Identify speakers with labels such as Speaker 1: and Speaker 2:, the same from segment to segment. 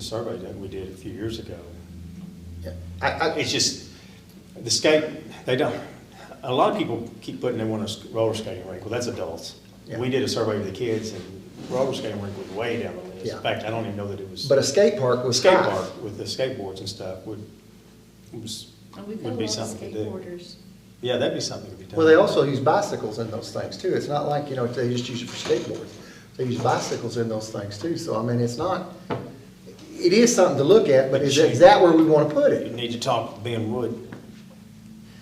Speaker 1: survey that we did a few years ago.
Speaker 2: I, I,
Speaker 1: It's just, the skate, they don't, a lot of people keep putting they want a sk- roller skating rink, well, that's adults.
Speaker 2: Yeah.
Speaker 1: We did a survey of the kids and roller skating rink was way down the list.
Speaker 2: Yeah.
Speaker 1: In fact, I don't even know that it was.
Speaker 2: but a skate park was
Speaker 1: Skate
Speaker 2: high.
Speaker 1: park with the skateboards and stuff would, was,
Speaker 3: And Oh, we've got a
Speaker 1: would
Speaker 3: lot
Speaker 1: be
Speaker 3: of
Speaker 1: something to do.
Speaker 3: skateboarders.
Speaker 1: Yeah, that'd be something to be done.
Speaker 2: Well, they also use bicycles in those things too. It's not like, you know, they just use it for skateboards. They use bicycles in those things too. So I mean, it's not, it is something to look at, but is, is that where we want to put
Speaker 1: You
Speaker 2: it?
Speaker 1: need to talk to Ben Wood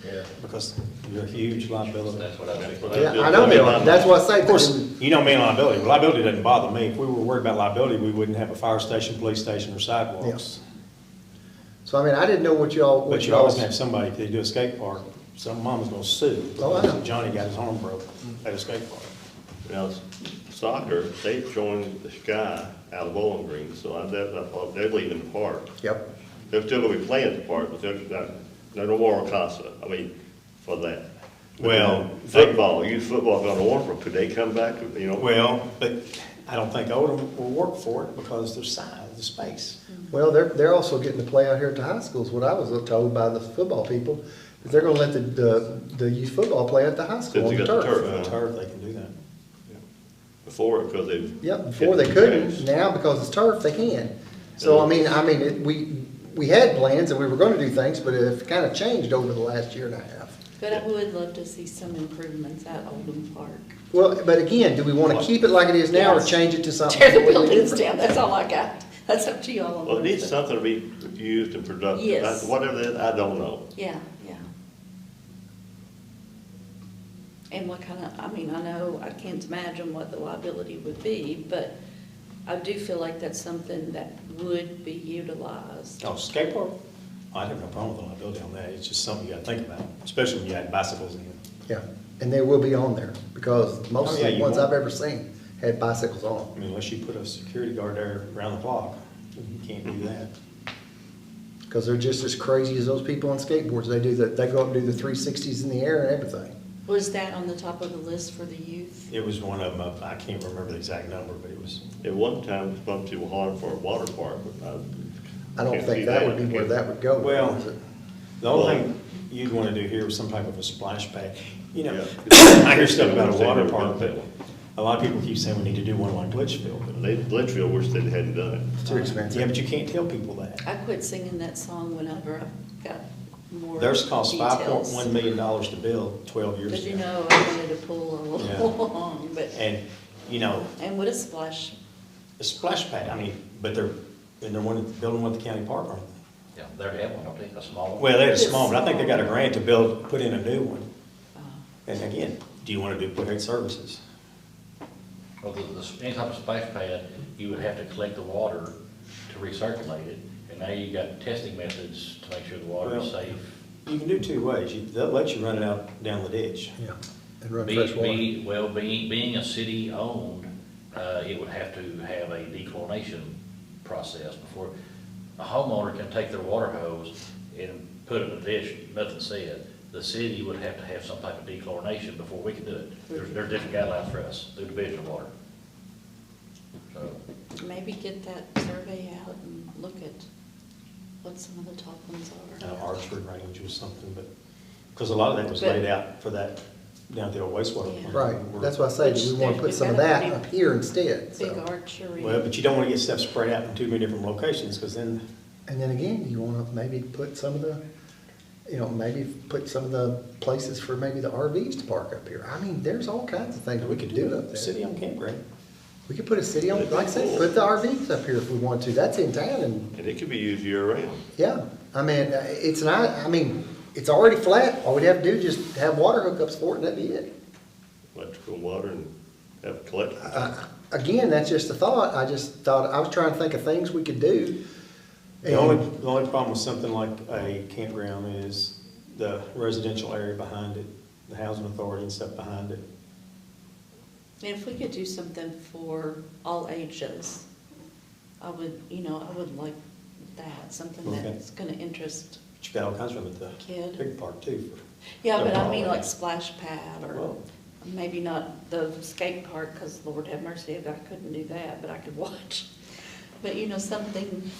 Speaker 4: Yeah.
Speaker 1: because you're a huge liability.
Speaker 4: That's what I think.
Speaker 2: Yeah, I know, Bill. That's why I say.
Speaker 1: Of course, you know me and liability. Liability doesn't bother me. If we were worried about liability, we wouldn't have a fire station, police station, or sidewalks.
Speaker 2: So I mean, I didn't know what y'all,
Speaker 1: But
Speaker 2: what
Speaker 1: you always
Speaker 2: y'all,
Speaker 1: have somebody, if they do a skate park, some mom's gonna sue.
Speaker 2: Oh, I know.
Speaker 1: because Johnny got his arm broke at a skate park.
Speaker 5: Now, s- soccer, they joined the Sky out of Bowling Green, so I, that, I thought they're leaving the park.
Speaker 2: yep.
Speaker 5: They're still gonna be playing at the park, but they're, not- they're no more Casa, I mean, for that.
Speaker 1: Well,
Speaker 5: Football, youth football gonna Orford, could they come back, you know?
Speaker 1: Well, but I don't think Odom will work for it because their size, the space.
Speaker 2: Well, they're, they're also getting to play out here at the high schools, what I was told by the football people. that They're gonna let the, the, the youth football play at the high school on
Speaker 5: Since
Speaker 2: the
Speaker 5: they got the
Speaker 2: turf.
Speaker 5: turf.
Speaker 1: For a turf, they can do that.
Speaker 5: Before, because they've.
Speaker 2: Yep, before they couldn't, now because it's turf, they can. So, I mean, I mean, it- we, we had plans and we were gonna do things, but it kind of changed over the last year and a half.
Speaker 3: But I would love to see some improvements at Oldham Park.
Speaker 2: Well, but again, do we want to keep it like it is now or
Speaker 3: Yes.
Speaker 2: change it to
Speaker 1: Oh.
Speaker 2: something?
Speaker 3: Tear the
Speaker 2: completely
Speaker 3: buildings
Speaker 2: different?
Speaker 3: down, that's all I got. That's up to y'all.
Speaker 5: Well, it needs something to be used and productive.
Speaker 3: Yes.
Speaker 5: I- Whatever that, I don't know.
Speaker 3: Yeah, yeah. And what kind of, I mean, I know, I can't imagine what the liability would be, but I do feel like that's something that would be utilized.
Speaker 1: Oh, skate park? I'd have no problem with the liability on that. It's just something you gotta think about, especially when you add bicycles in.
Speaker 2: Yeah, and they will be on there because most
Speaker 1: Oh, yeah,
Speaker 2: of the
Speaker 1: you
Speaker 2: ones
Speaker 1: won't.
Speaker 2: I've ever seen had bicycles on them.
Speaker 1: I mean, unless you put a security guard there around the clock, you can't do that.
Speaker 2: Because they're just as crazy as those people on skateboards. They do the, they go up and do the three sixties in the air and everything.
Speaker 3: Was that on the top of the list for the youth?
Speaker 1: It was one of them, I can't remember the exact number, but it was,
Speaker 5: At one time, it was bumped to Harlem for a water park, but I.
Speaker 2: I don't
Speaker 5: can't see
Speaker 2: think that would be where
Speaker 5: Can't-
Speaker 2: that would go.
Speaker 1: Well-
Speaker 2: is it?
Speaker 1: the only thing you'd wanna do here was some type of a splash pad. You know,
Speaker 5: Yeah.
Speaker 1: I hear stuff about a water park, but a lot of people keep saying we need to do one like Litchfield, but.
Speaker 5: They, Litchfield wish they hadn't done it.
Speaker 2: It's too expensive.
Speaker 1: Yeah, but you can't tell people that.
Speaker 3: I quit singing that song whenever I got more
Speaker 1: Theirs cost five point
Speaker 3: details.
Speaker 1: one million dollars to build twelve years
Speaker 3: But you
Speaker 1: ago.
Speaker 3: know, I wanted to pull a
Speaker 1: Yeah.
Speaker 3: little long, but,
Speaker 1: And, you know,
Speaker 3: and what a splash.
Speaker 1: a splash pad, I mean, but they're, and they're one, building one at the county park, aren't they?
Speaker 4: Yeah, they're having, I think, a small one.
Speaker 1: Well, they had a small, but I think they got a grant to build, put in a new one.
Speaker 3: Oh.
Speaker 1: And again, do you want to duplicate services?
Speaker 4: Well, the, the, any type of splash pad, you would have to collect the water to recirculate it, and now you got testing methods to make sure the water is
Speaker 1: Well,
Speaker 4: safe.
Speaker 1: You can do two ways. You- They'll let you run it out down the ditch.
Speaker 2: Yeah, and run
Speaker 4: Be-
Speaker 2: fresh water.
Speaker 4: be- Well, being, being a city-owned, uh, it would have to have a declination process before, a homeowner can take their water hose and put it in a dish, nothing said. The city would have to have some type of declination before we can do it. There's, there are different guidelines for us, through division of water. So,
Speaker 3: Maybe get that survey out and look at what some of the top ones
Speaker 1: Uh,
Speaker 3: are.
Speaker 1: Archery range or something, but, because a lot of that was laid out for that, down at the old wastewater. plant.
Speaker 2: Right, that's why I say, do we want to put some of that up here instead?
Speaker 3: Big
Speaker 2: So,
Speaker 3: archery.
Speaker 1: Well, but you don't want to get stuff spread out in too many different locations, because then,
Speaker 2: And then again, do you want to maybe put some of the, you know, maybe put some of the places for maybe the RVs to park up here? I mean, there's all kinds of things
Speaker 1: we could do
Speaker 2: up
Speaker 1: a
Speaker 2: there.
Speaker 1: city on campground.
Speaker 2: We could put a city on, like I said, put the RVs up here if we want to. That's in town and,
Speaker 5: And it could be used year-round.
Speaker 2: yeah. I mean, uh, it's not, I mean, it's already flat. All we'd have to do is just have water hookups for it and that'd be it.
Speaker 5: electrical water and have collect.
Speaker 2: Uh, Again, that's just a thought. I just thought, I was trying to think of things we could do.
Speaker 1: The only, the only problem with something like a campground is the residential area behind it, the housing authority and stuff behind it.
Speaker 3: And if we could do something for all ages, I would, you know, I would like that, something
Speaker 1: Okay.
Speaker 3: that's gonna interest.
Speaker 1: But you got all kinds of them at the
Speaker 3: Kid.
Speaker 1: pig park too.
Speaker 3: Yeah, but I
Speaker 1: Oh,
Speaker 3: mean
Speaker 1: yeah.
Speaker 3: like splash pad or
Speaker 1: Well-
Speaker 3: maybe not the skate park, cause Lord have mercy, if I couldn't do that, but I could watch. But you know, something